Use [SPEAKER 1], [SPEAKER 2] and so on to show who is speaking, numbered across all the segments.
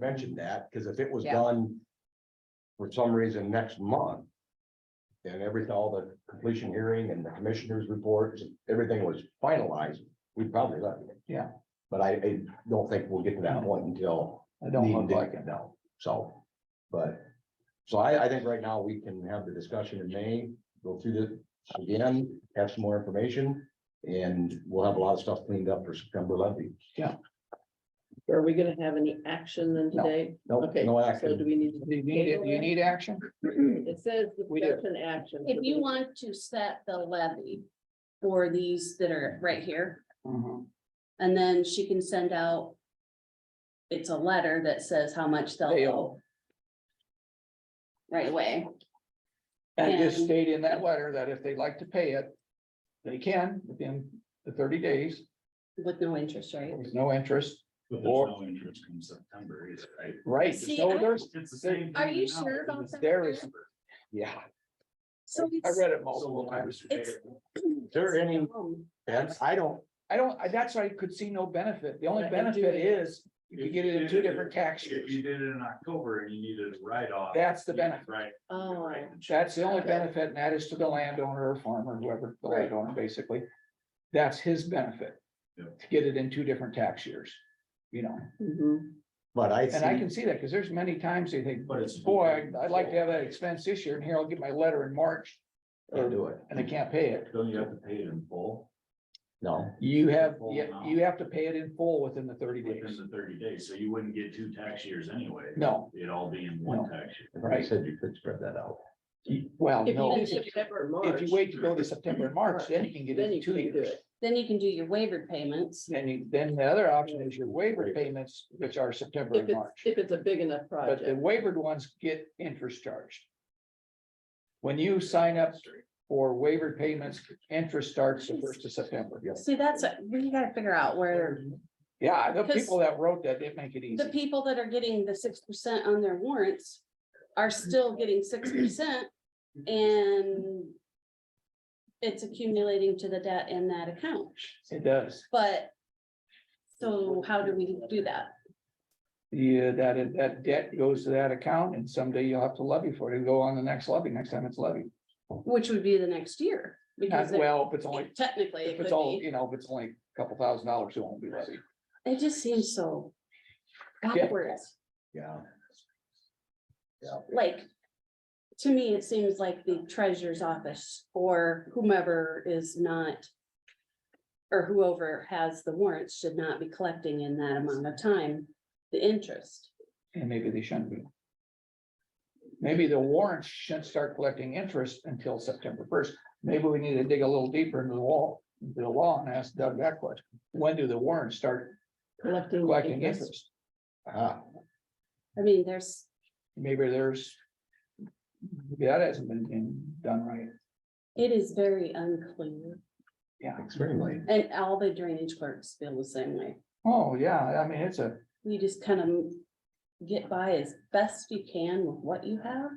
[SPEAKER 1] mentioned that, because if it was
[SPEAKER 2] Yeah.
[SPEAKER 1] done for some reason next month, and everything, all the completion hearing and the commissioners' reports, and everything was finalized, we'd probably let it.
[SPEAKER 3] Yeah.
[SPEAKER 1] But I, I don't think we'll get to that point until.
[SPEAKER 3] I don't look
[SPEAKER 1] Dean
[SPEAKER 3] like
[SPEAKER 1] did-
[SPEAKER 3] it.
[SPEAKER 1] No, so, but, so I, I think right now we can have the discussion in May, go through this again, have some more information, and we'll have a lot of stuff cleaned up for September levy.
[SPEAKER 4] Are we gonna have any action then
[SPEAKER 3] No.
[SPEAKER 4] today?
[SPEAKER 1] No,
[SPEAKER 4] Okay,
[SPEAKER 1] no
[SPEAKER 4] so do
[SPEAKER 1] action.
[SPEAKER 4] we need,
[SPEAKER 3] Do you need, it? Do you need action? Mm-hmm.
[SPEAKER 4] to- it says
[SPEAKER 3] We do.
[SPEAKER 4] discussion action.
[SPEAKER 2] If you want to set the levy for these that are right here,
[SPEAKER 3] Mhm.
[SPEAKER 2] and then she can send out. It's a letter that says how much they'll
[SPEAKER 3] They
[SPEAKER 2] owe
[SPEAKER 3] owe.
[SPEAKER 2] right away.
[SPEAKER 3] And just
[SPEAKER 2] And-
[SPEAKER 3] state in that letter that if they'd like to pay it, they can within the thirty days,
[SPEAKER 2] With no interest rate.
[SPEAKER 3] with no interest.
[SPEAKER 5] But there's
[SPEAKER 3] Or-
[SPEAKER 5] no interest in September either, right?
[SPEAKER 3] Right,
[SPEAKER 2] See,
[SPEAKER 3] so
[SPEAKER 2] I-
[SPEAKER 3] there's,
[SPEAKER 5] It's the same.
[SPEAKER 2] Are
[SPEAKER 5] thing
[SPEAKER 2] you
[SPEAKER 5] now,
[SPEAKER 2] sure about
[SPEAKER 5] it's
[SPEAKER 2] that?
[SPEAKER 3] there is,
[SPEAKER 5] September.
[SPEAKER 3] yeah,
[SPEAKER 2] So
[SPEAKER 3] I
[SPEAKER 2] it's.
[SPEAKER 3] read it
[SPEAKER 5] So
[SPEAKER 3] multiple
[SPEAKER 5] will I
[SPEAKER 3] times.
[SPEAKER 5] receive
[SPEAKER 2] It's-
[SPEAKER 5] it?
[SPEAKER 1] there any-
[SPEAKER 2] Um,
[SPEAKER 1] And I don't,
[SPEAKER 3] I don't, I- that's why I could see no benefit. The only
[SPEAKER 4] But I can do
[SPEAKER 3] benefit
[SPEAKER 4] it.
[SPEAKER 3] is you could get it in two different tax
[SPEAKER 5] If you
[SPEAKER 3] years.
[SPEAKER 5] did it in October and you needed a write-off.
[SPEAKER 3] That's the
[SPEAKER 5] you could
[SPEAKER 3] benefit.
[SPEAKER 5] write- you could
[SPEAKER 2] Oh,
[SPEAKER 5] write the check.
[SPEAKER 3] That's the only benefit and that is to the landowner or farmer, whoever, the
[SPEAKER 4] Right.
[SPEAKER 3] landowner basically. That's his benefit.
[SPEAKER 5] Yeah.
[SPEAKER 3] To get it in two different tax years, you know, Mm-hmm.
[SPEAKER 4] Mhm.
[SPEAKER 1] but I
[SPEAKER 3] and I
[SPEAKER 1] see,
[SPEAKER 3] can see that because there's many times they think,
[SPEAKER 5] But it's-
[SPEAKER 3] boy, I'd- I'd like to have that expense this year and here I'll get my letter in March.
[SPEAKER 1] can't do it,
[SPEAKER 3] and they can't pay it.
[SPEAKER 5] Don't you have to pay it in full
[SPEAKER 1] no.
[SPEAKER 3] You have,
[SPEAKER 5] Full
[SPEAKER 3] yeah,
[SPEAKER 5] amount.
[SPEAKER 3] you have to pay it in full within the thirty
[SPEAKER 5] within
[SPEAKER 3] days.
[SPEAKER 5] the thirty days, so you wouldn't get two tax years anyway.
[SPEAKER 3] No,
[SPEAKER 5] It'd all be in
[SPEAKER 3] No.
[SPEAKER 5] one tax year.
[SPEAKER 1] I thought you said you could spread that out.
[SPEAKER 3] you- well,
[SPEAKER 4] If
[SPEAKER 3] no,
[SPEAKER 4] you do
[SPEAKER 3] if
[SPEAKER 4] September,
[SPEAKER 3] you
[SPEAKER 4] March,
[SPEAKER 3] wait to go to September and March, then you can get it
[SPEAKER 4] then
[SPEAKER 3] in
[SPEAKER 4] you can
[SPEAKER 3] two
[SPEAKER 4] do
[SPEAKER 3] years.
[SPEAKER 4] it.
[SPEAKER 2] Then you can do your waiver payments.
[SPEAKER 3] Then you, then the other option is your waiver payments, which are September
[SPEAKER 4] If
[SPEAKER 3] and
[SPEAKER 4] it's,
[SPEAKER 3] March.
[SPEAKER 4] if it's a big enough
[SPEAKER 3] But the
[SPEAKER 4] project.
[SPEAKER 3] wavered ones get interest charged. When you sign up for wavered payments, interest starts the first of September.
[SPEAKER 2] See, that's, a- we gotta figure out where
[SPEAKER 3] Yeah, the
[SPEAKER 2] Because-
[SPEAKER 3] people that wrote that didn't make it
[SPEAKER 2] the
[SPEAKER 3] easy.
[SPEAKER 2] people that are getting the six percent on their warrants are still getting six percent and it's accumulating to the debt in that account,
[SPEAKER 3] It does.
[SPEAKER 2] but so how do we do that?
[SPEAKER 3] Yeah, that, is- that debt goes to that account and someday you'll have to levy for it. It'll go on the next levy, next time it's levied.
[SPEAKER 2] Which would be the next year,
[SPEAKER 3] Not
[SPEAKER 2] because it-
[SPEAKER 3] well, if it's only,
[SPEAKER 2] technically it
[SPEAKER 3] if
[SPEAKER 2] could
[SPEAKER 3] it's all,
[SPEAKER 2] be,
[SPEAKER 3] you know, if it's only a couple thousand dollars, it won't be levied.
[SPEAKER 2] it just seems so
[SPEAKER 3] Yeah.
[SPEAKER 2] backwards,
[SPEAKER 1] Yeah.
[SPEAKER 2] like, to me, it seems like the treasurer's office or whomever is not or whoever has the warrants should not be collecting in that amount of time, the interest.
[SPEAKER 3] And maybe they shouldn't be. Maybe the warrants shouldn't start collecting interest until September first. Maybe we need to dig a little deeper into the wall, into the law and ask Doug that question. When do the warrants start
[SPEAKER 4] Collecting
[SPEAKER 3] collecting
[SPEAKER 4] interest.
[SPEAKER 3] interest?
[SPEAKER 1] Ah,
[SPEAKER 2] I mean, there's,
[SPEAKER 3] Maybe there's. maybe That hasn't been- been done right.
[SPEAKER 2] it is very unclear,
[SPEAKER 3] Yeah.
[SPEAKER 1] extremely.
[SPEAKER 2] and all the drainage clerks feel the same way.
[SPEAKER 3] Oh, yeah. I mean, it's a,
[SPEAKER 2] You just kind of get by as best you can with what you have.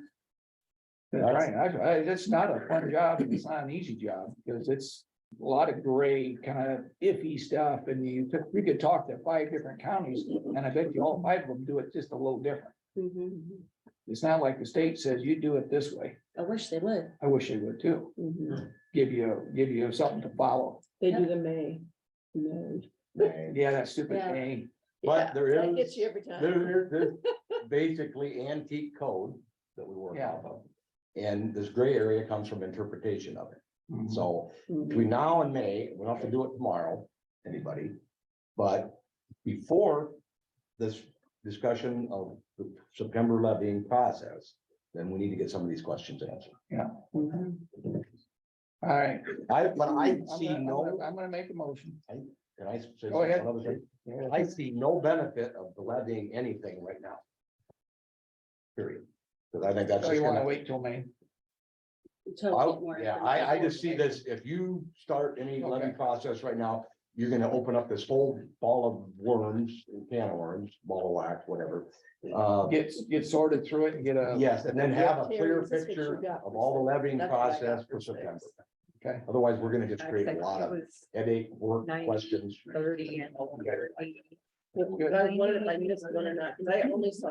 [SPEAKER 3] That's right, I, I, it's not a fun job, and it's not an easy job, because it's a lot of gray, kind of iffy stuff, and you, could- you could talk to five different counties, and I bet you all five of them do it just a little different.
[SPEAKER 1] Mm-hmm.
[SPEAKER 3] It's not like the state says, you do it this way,
[SPEAKER 2] I wish they would.
[SPEAKER 3] I wish they would too,
[SPEAKER 4] Mhm.
[SPEAKER 3] give you, give you something to follow,
[SPEAKER 4] They do the May, May.
[SPEAKER 3] yeah, that stupid
[SPEAKER 2] Yeah.
[SPEAKER 3] thing.
[SPEAKER 1] But there
[SPEAKER 4] That
[SPEAKER 1] is-
[SPEAKER 4] gets you every time.
[SPEAKER 1] There, there's basically antique code that we work
[SPEAKER 3] Yeah.
[SPEAKER 1] off of. And this gray area comes from interpretation of it.
[SPEAKER 3] Mhm.
[SPEAKER 1] So
[SPEAKER 4] Mhm.
[SPEAKER 1] between now and May, we don't have to do it tomorrow, anybody. But before this discussion of the September levying process, then we need to get some of these questions answered.
[SPEAKER 4] Mhm.
[SPEAKER 3] All right.
[SPEAKER 1] I, but I
[SPEAKER 3] I'm
[SPEAKER 1] see
[SPEAKER 3] gonna- I'm
[SPEAKER 1] no,
[SPEAKER 3] gonna- I'm gonna make a motion.
[SPEAKER 1] can I say
[SPEAKER 3] Go ahead.
[SPEAKER 1] one other thing? I see no benefit of the levying anything right now. Period. Because I think that's. just
[SPEAKER 3] So Oh, you wanna
[SPEAKER 1] gonna-
[SPEAKER 3] wait till May?
[SPEAKER 2] to
[SPEAKER 1] I-
[SPEAKER 2] get more
[SPEAKER 1] Yeah, I, I
[SPEAKER 2] information.
[SPEAKER 1] just see this, if you start any levy
[SPEAKER 3] Okay.
[SPEAKER 1] process right now, you're gonna open up this whole ball of worms, can of worms, ball of wax, whatever. Uh,
[SPEAKER 3] Get, get sorted through it and get a.
[SPEAKER 1] yes, and then have a clear
[SPEAKER 4] Yeah, Terry, this is what you
[SPEAKER 1] picture
[SPEAKER 4] got
[SPEAKER 1] of
[SPEAKER 4] for
[SPEAKER 1] all the levying
[SPEAKER 4] That's what I got
[SPEAKER 1] process for
[SPEAKER 4] for six.
[SPEAKER 1] September.
[SPEAKER 3] Okay.
[SPEAKER 1] Otherwise, we're gonna just
[SPEAKER 6] I
[SPEAKER 1] create a
[SPEAKER 6] think
[SPEAKER 1] lot
[SPEAKER 6] it
[SPEAKER 1] of
[SPEAKER 6] was
[SPEAKER 1] headache, work
[SPEAKER 6] Nine.
[SPEAKER 1] questions.
[SPEAKER 6] Thirty and.
[SPEAKER 4] I wondered if I missed one or not, because I only saw